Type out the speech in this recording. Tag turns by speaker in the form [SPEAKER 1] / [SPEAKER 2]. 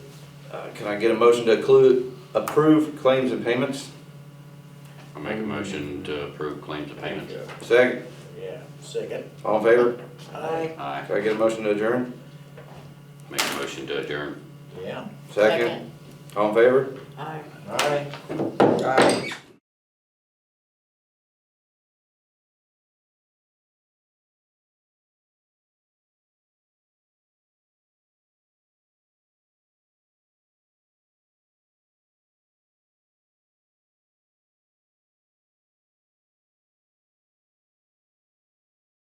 [SPEAKER 1] Uh, Can I get a motion to include, approve claims and payments?
[SPEAKER 2] I make a motion to approve claims and payments.
[SPEAKER 1] Second,
[SPEAKER 3] Yeah, second.
[SPEAKER 1] all in favor?
[SPEAKER 3] Aye.
[SPEAKER 2] Aye.
[SPEAKER 1] Can I get a motion to adjourn?
[SPEAKER 2] Make a motion to adjourn.
[SPEAKER 3] Yeah.
[SPEAKER 1] Second, all in favor?
[SPEAKER 4] Aye.
[SPEAKER 3] Aye.
[SPEAKER 4] Aye.